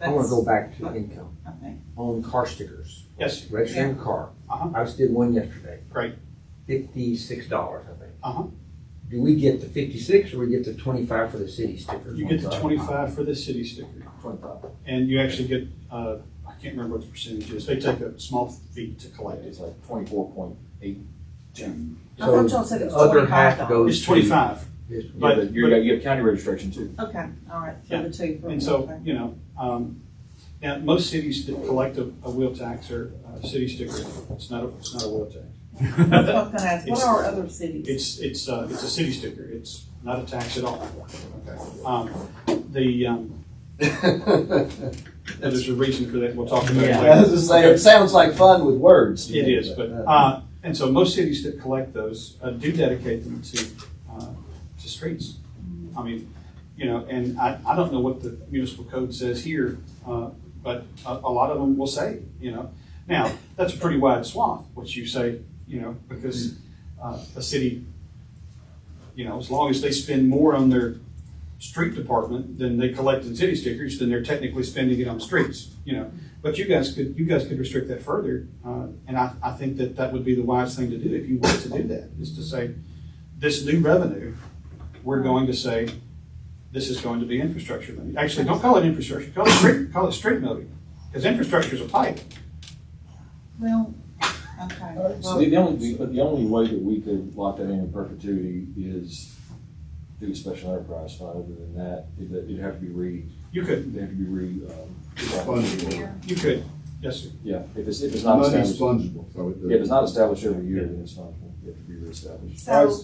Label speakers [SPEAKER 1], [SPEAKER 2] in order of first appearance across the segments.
[SPEAKER 1] I want to
[SPEAKER 2] That's-
[SPEAKER 1] go back to income
[SPEAKER 2] Okay.
[SPEAKER 1] on car stickers,
[SPEAKER 3] Yes,
[SPEAKER 1] registering a car.
[SPEAKER 3] Uh-huh.
[SPEAKER 1] I just did one yesterday.
[SPEAKER 3] Great.
[SPEAKER 1] Fifty-six dollars, I think.
[SPEAKER 3] Uh-huh.
[SPEAKER 1] Do we get the fifty-six or we get the twenty-five for the city sticker?
[SPEAKER 3] you get the twenty-five for the city sticker,
[SPEAKER 1] Twenty-five.
[SPEAKER 3] and you actually get, uh, I can't remember what the percentage is, they take a small fee to collect it.
[SPEAKER 4] It's like twenty-four point eight two.
[SPEAKER 2] I thought y'all
[SPEAKER 1] So
[SPEAKER 2] said it was
[SPEAKER 1] the other half
[SPEAKER 2] $25.
[SPEAKER 1] goes.
[SPEAKER 3] It's twenty-five,
[SPEAKER 1] Yes.
[SPEAKER 3] But-
[SPEAKER 4] But you got, you have county registration too.
[SPEAKER 2] Okay, all right,
[SPEAKER 3] Yeah.
[SPEAKER 2] so the two. for
[SPEAKER 3] and
[SPEAKER 2] me,
[SPEAKER 3] so,
[SPEAKER 2] okay.
[SPEAKER 3] you know, um, now, most cities that collect a, a wheel tax or a city sticker, it's not a, it's not a wheel
[SPEAKER 2] That's what I was
[SPEAKER 3] tax.
[SPEAKER 2] gonna ask, what
[SPEAKER 3] It's-
[SPEAKER 2] are other cities?
[SPEAKER 3] It's, it's, uh, it's a city sticker, it's not a tax at all. Um, the, um, there's a reason for that, we'll talk about it later.
[SPEAKER 4] was just saying, it sounds like fun with words.
[SPEAKER 3] It is, but, uh, and so most cities that collect those uh, do dedicate them to, uh, to streets. I mean, you know, and I, I don't know what the municipal code says here, uh, but a, a lot of them will say, you know. Now, that's a pretty wide swath, what you say, you know, because, uh, a city, you know, as long as they spend more on their street department than they collect in city stickers, then they're technically spending it on streets, you know. But you guys could, you guys could restrict that further, uh, and I, I think that that would be the wise thing to do if you wanted to do that, is to say, this new revenue, we're going to say, this is going to be infrastructure money. Actually, don't call it infrastructure, call it street, call it street moving, because infrastructure's a pipe.
[SPEAKER 2] Well, okay.
[SPEAKER 4] So the the only, but the only way that we could lock that in in perpetuity is through a special enterprise fund. Other than that, it'd, it'd have to be re,
[SPEAKER 3] You could,
[SPEAKER 4] it'd have to be re, um.
[SPEAKER 5] Fungible.
[SPEAKER 3] you could, yes, sir.
[SPEAKER 4] Yeah, if it's, if it's not
[SPEAKER 5] Money's
[SPEAKER 4] established,
[SPEAKER 5] fungible, so it
[SPEAKER 4] yeah, if it's
[SPEAKER 5] doesn't.
[SPEAKER 4] not established every year, then it's not, it have to be reestablished.
[SPEAKER 2] So,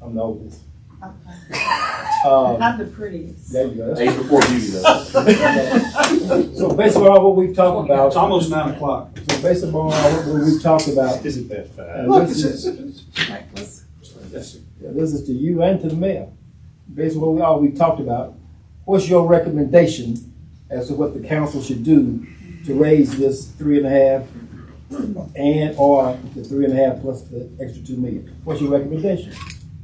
[SPEAKER 6] I'm the oldest.
[SPEAKER 2] okay.
[SPEAKER 6] Um,
[SPEAKER 2] I'm the prettiest.
[SPEAKER 6] there you go.
[SPEAKER 4] Age before beauty though.
[SPEAKER 6] So based on what we've talked about,
[SPEAKER 3] It's
[SPEAKER 6] so
[SPEAKER 3] almost nine o'clock.
[SPEAKER 6] based upon what we've talked about,
[SPEAKER 5] Isn't that fast?
[SPEAKER 6] uh, this is,
[SPEAKER 2] Okay, let's-
[SPEAKER 3] Yes, sir.
[SPEAKER 6] this is to you and to the mayor. Based on what we, all we've talked about, what's your recommendation as to what the council should do to raise this three and a half and or the three and a half plus the extra two million? What's your recommendation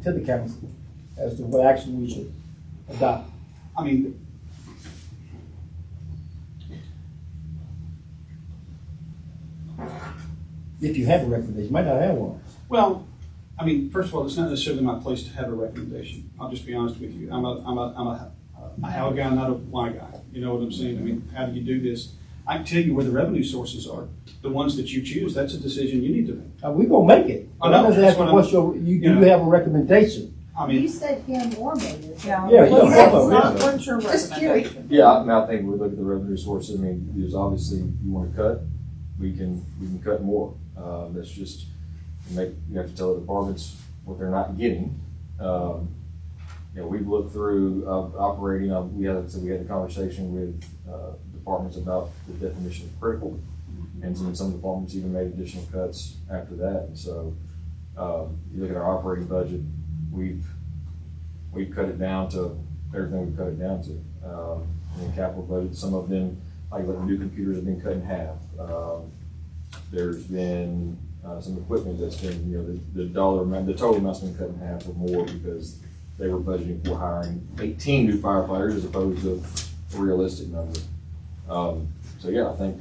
[SPEAKER 6] to the council as to what action we should adopt?
[SPEAKER 3] I mean,
[SPEAKER 6] If you have a recommendation, you might not have one.
[SPEAKER 3] well, I mean, first of all, it's not necessarily my place to have a recommendation. I'll just be honest with you. I'm a, I'm a, I'm a, a how guy, not a why guy. You know what I'm saying? I mean, how do you do this? I can tell you where the revenue sources are. The ones that you choose, that's a decision you need to make.
[SPEAKER 6] Uh, we gonna make it.
[SPEAKER 3] I know,
[SPEAKER 6] I'm just
[SPEAKER 3] Oh, that's
[SPEAKER 6] asking
[SPEAKER 3] what I'm-
[SPEAKER 6] What's your, you,
[SPEAKER 3] you
[SPEAKER 6] you
[SPEAKER 3] know.
[SPEAKER 6] have a recommendation?
[SPEAKER 3] I
[SPEAKER 7] You
[SPEAKER 3] mean,
[SPEAKER 7] said him or me.
[SPEAKER 2] Yeah,
[SPEAKER 6] Yeah, you
[SPEAKER 2] what's-
[SPEAKER 6] don't know,
[SPEAKER 2] what's-
[SPEAKER 6] yeah.
[SPEAKER 2] what's your
[SPEAKER 7] Just curious.
[SPEAKER 2] recommendation?
[SPEAKER 4] Yeah, I mean, I think we look at the revenue sources, I mean, there's obviously, you wanna cut, we can, we can cut more. Um, that's just, you make, you have to tell the departments what they're not getting. Um, you know, we've looked through, uh, operating, uh, we had, so we had a conversation with, uh, departments about the definition of critical. And some, some departments even made additional cuts after that, and so, um, you look at our operating budget, we've, we've cut it down to everything we've cut it down to. Um, and then capital budget, some of them, like the new computers have been cut in half. Um, there's been, uh, some equipment that's been, you know, the, the dollar amount, the total amount's been cut in half or more because they were budgeting for hiring eighteen new firefighters as opposed to a realistic number. Um, so yeah, I think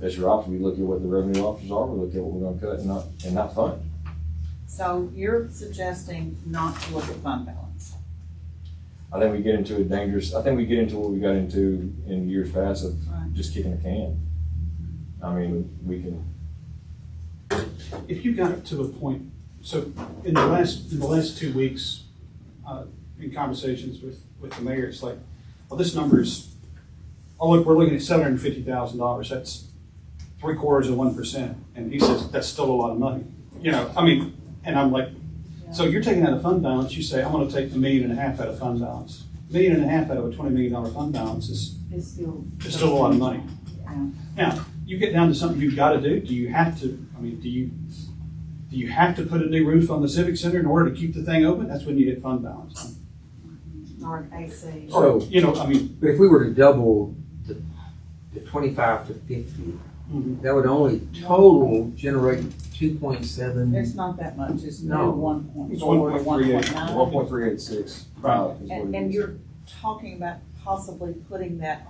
[SPEAKER 4] that's your option. We look at what the revenue options are, we look at what we're gonna cut and not, and not fund.
[SPEAKER 2] So you're suggesting not to look at fund balance?
[SPEAKER 4] I think we get into a dangerous. I think we get into what we got into in years past of
[SPEAKER 2] Right.
[SPEAKER 4] just kicking the can. I mean, we can.
[SPEAKER 3] if you got to the point, so in the last, in the last two weeks, uh, in conversations with, with the mayor, it's like, well, this number is, oh, look, we're looking at seven hundred and fifty thousand dollars, that's three quarters of one percent, and he says, that's still a lot of money, you know, I mean, and I'm like, so you're taking out a fund balance, you say, I'm gonna take a million and a half out of fund balance. Million and a half out of a twenty million dollar fund balance is,
[SPEAKER 2] It's still.
[SPEAKER 3] is still a lot of money.
[SPEAKER 2] Yeah.
[SPEAKER 3] Now, you get down to something you've got to do. Do you have to? I mean, do you do you have to put a new roof on the civic center in order to keep the thing open? That's when you hit fund balance.
[SPEAKER 2] Or an AC.
[SPEAKER 3] Or
[SPEAKER 1] So-
[SPEAKER 3] you know, I mean,
[SPEAKER 1] But if we were to double the, the twenty-five to fifty,
[SPEAKER 3] mhm.
[SPEAKER 1] that would only total generate two point seven.
[SPEAKER 2] It's not that much, it's
[SPEAKER 1] No.
[SPEAKER 2] no one point
[SPEAKER 3] It's
[SPEAKER 2] four, one point
[SPEAKER 3] 1.38.
[SPEAKER 2] nine.
[SPEAKER 4] One point three eight six.
[SPEAKER 3] Right.
[SPEAKER 2] And, and you're talking about possibly putting that